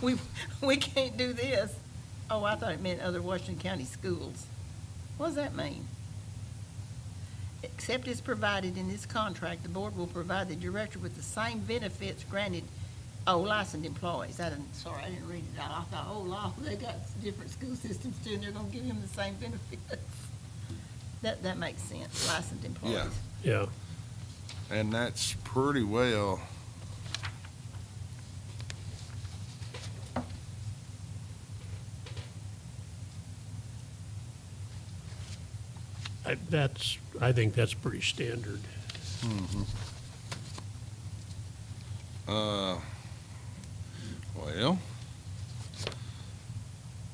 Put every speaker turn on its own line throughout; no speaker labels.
we, we can't do this. Oh, I thought it meant other Washington County schools. What does that mean? Except as provided in this contract, the board will provide the director with the same benefits granted, oh, licensed employees. I didn't, sorry, I didn't read it out. I thought, oh, law, they got different school systems too, and they're gonna give him the same benefits. That, that makes sense, licensed employees.
Yeah.
Yeah,
And that's pretty well.
I- that's, I think that's pretty standard.
Uh, well,
May,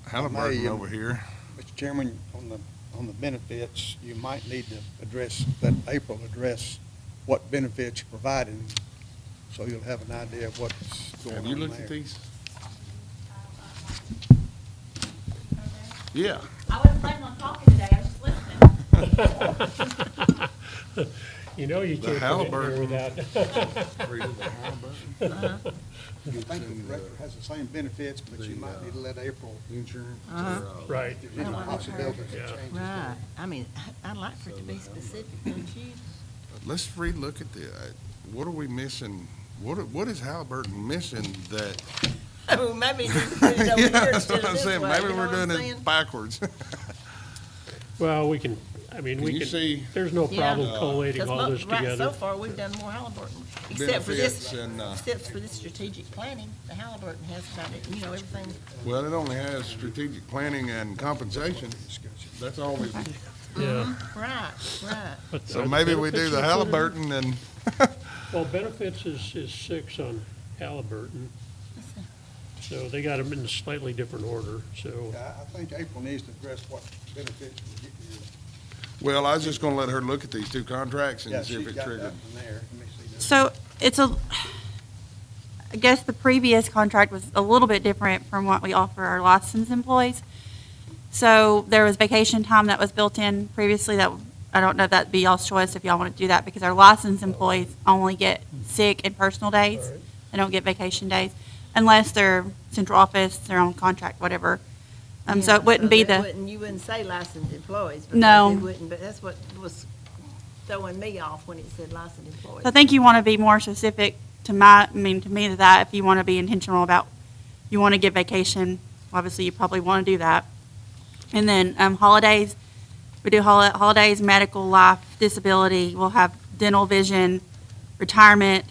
Halliburton
um,
over here.
Mr. Chairman, on the, on the benefits, you might need to address, let April address what benefits you're providing, so you'll have an idea of what's going on
Have you
there.
looked at these? Yeah.
I wasn't planning on talking today, I was just listening.
You know, you
The
can't get in there
Halliburton. Uh-huh.
without,
You think the director has the same benefits, but you might need to let April,
Uh-huh.
right,
if there's a uh, possibility.
yeah.
Right, I mean, I- I'd like for it to be specific, don't you?
Let's relook at the, uh, what are we missing? What, are- what is Halliburton missing that?
Oh, maybe you just put it over
Yeah,
here
that's
instead
what
of
I'm
this
saying.
way,
Maybe
you know
we're
what I'm
doing
saying?
it backwards.
Well, we can, I mean,
Can
we
you
can,
see- Uh,
there's no
Yeah.
problem collating
'Cause
all
look,
this
Right, so
together.
far, we've done more Halliburton, except for this,
Benefits and, uh,
except for this strategic planning, the Halliburton has about it, you know, everything.
Well, it only has strategic planning and compensation. That's all we,
Yeah.
uh-huh. Right, right.
but
so
are the
maybe we do
benefits
the
included?
Halliburton and
Well, benefits is, is six on Halliburton. So they got them in a slightly different order, so,
Yeah, I I think April needs to address what benefits you get.
Well, I was just gonna let her look at these two contracts
Yeah,
and see if
she's
it
got that
triggered.
one there. Let me see that.
So it's a, I guess the previous contract was a little bit different from what we offer our licensed employees. So there was vacation time that was built in previously that, I don't know if that'd be y'all's choice if y'all want to do that because our licensed employees only get sick and personal days. They don't get vacation days unless they're central office, they're on contract, whatever. Um, so
Yeah,
it wouldn't be
that
the,
wouldn't- You wouldn't say licensed employees. because
No.
It wouldn't, but that's what was throwing me off when it said licensed employees.
so I think you want to be more specific to my, I mean, to me to that, if you want to be intentional about you want to give vacation, obviously you probably want to do that. And then um, holidays, we do hol- holidays, medical, life, disability, we'll have dental, vision, retirement,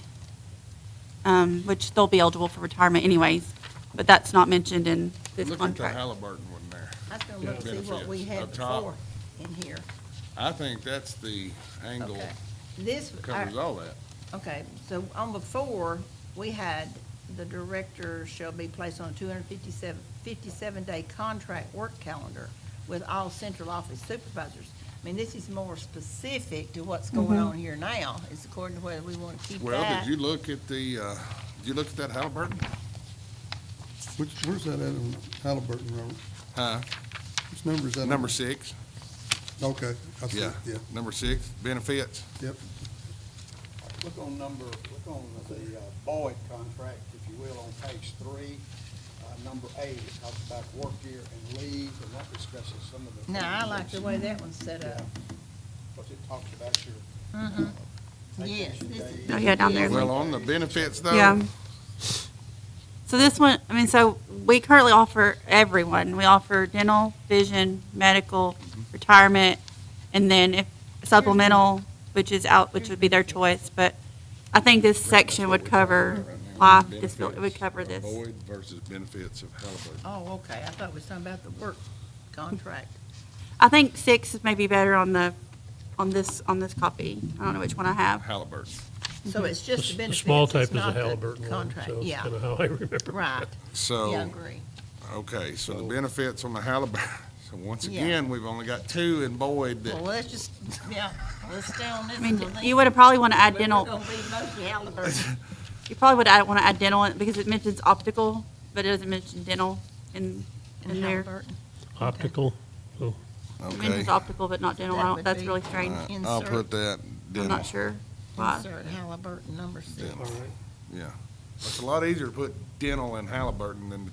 um, which they'll be eligible for retirement anyways, but that's not mentioned in this
Look at the
contract.
Halliburton one there.
I was gonna look, see what
Benefits
we had
up top.
before in here.
I think that's the angle
Okay. This, our-
covers all that.
Okay, so on before, we had the director shall be placed on a 257, 57-day contract work calendar with all central office supervisors. I mean, this is more specific to what's going
Mm-hmm.
on here now, is according to whether we want to keep
Well,
that.
did you look at the, uh, did you look at that Halliburton?
Which, where's that at on Halliburton Road?
Huh?
Which number is that? on?
Number six?
Okay, I see,
Yeah.
it, yeah,
Number six, benefits.
yep.
Look on number, look on the uh, Boyd contract, if you will, on page three, uh, number eight, it talks about work year and leave, and that discusses some of the.
No, I like the way that one's set up.
Because it talks about your. uh,
Mm-hmm. Yes,
vacation
this
days.
Oh, yeah, down there.
Well, on the benefits though.
Yeah. So this one, I mean, so we currently offer everyone, we offer dental, vision, medical, retirement, and then if supplemental, which is out, which would be their choice, but I think this section would cover life, disability, it would cover
Benefits
this.
of Boyd versus benefits of Halliburton.
Oh, okay, I thought we was talking about the work contract.
I think six is maybe better on the, on this, on this copy. I don't know which one I have.
Halliburton.
Mm-hmm.
So it's just
the
the
s- the
benefits,
small type
it's
is a
not the
Halliburton one,
contract,
so that's
yeah,
kind of how I remember.
right, yeah, I
So,
agree.
okay, so the benefits on the Halliburton, so once
Yeah.
again, we've only got two in Boyd that
Well, let's just, yeah, let's stay on this.
I mean, you would have probably want to add dental.
We're gonna be mostly Halliburton.
You probably would add, want to add dental in- because it mentions optical, but it doesn't mention dental in, in there.
Optical,
It
Okay,
mentions optical, but not dental. I
That
don't-
would
That's
be-
really strange.
Uh, I'll
Insert.
put that
I'm
dental.
not sure why.
Insert Halliburton number six.
Dental. Yeah. It's a lot easier to put dental in Halliburton than to